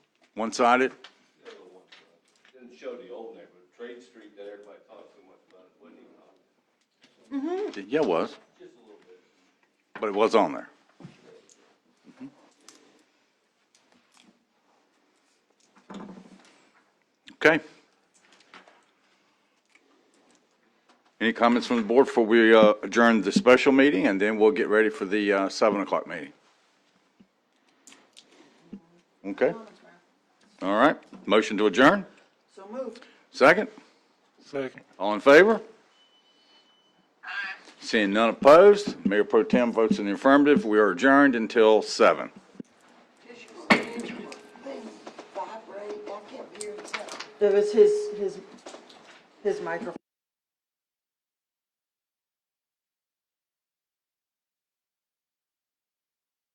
One-sided? Didn't show the old neighborhood, Trade Street that everybody talked so much about, it wasn't even on. Yeah, it was. But it was on there. Mhm. Okay. Any comments from the board before we uh, adjourn the special meeting, and then we'll get ready for the uh, 7 o'clock meeting? Okay? All right, motion to adjourn? So moved. Second? Second. All in favor? Seeing none opposed, Mayor Pro Tem votes in the affirmative. We are adjourned until seven. It was his, his, his microphone.